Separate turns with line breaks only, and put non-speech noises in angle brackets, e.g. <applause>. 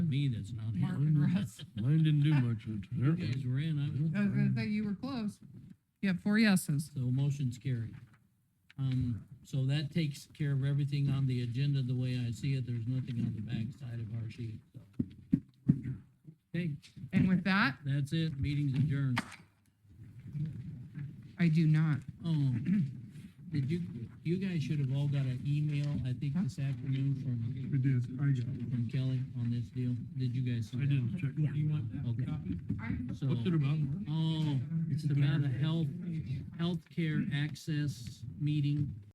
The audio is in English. me that's not here.
Mark
Mine
and <laughs>
didn't-
Russ.
Mine didn't do much,
You
apparently.
guys were in, I was,
I was gonna say you were close. You have four yeses.
so motion's carried. Um, so that takes care of everything on the agenda the way I see it. There's nothing on the back side of our sheet, so. Okay,
And with that,
that's it. Meeting's adjourned.
I do not.
Oh, did you, you guys should have all got an email, I think this afternoon
We
from,
did, I got it.
from Kelly on this deal. Did you guys see
I
that?
didn't check.
Yeah.
You want
Okay. So, um,
What's it about?
oh, it's about a health, healthcare access meeting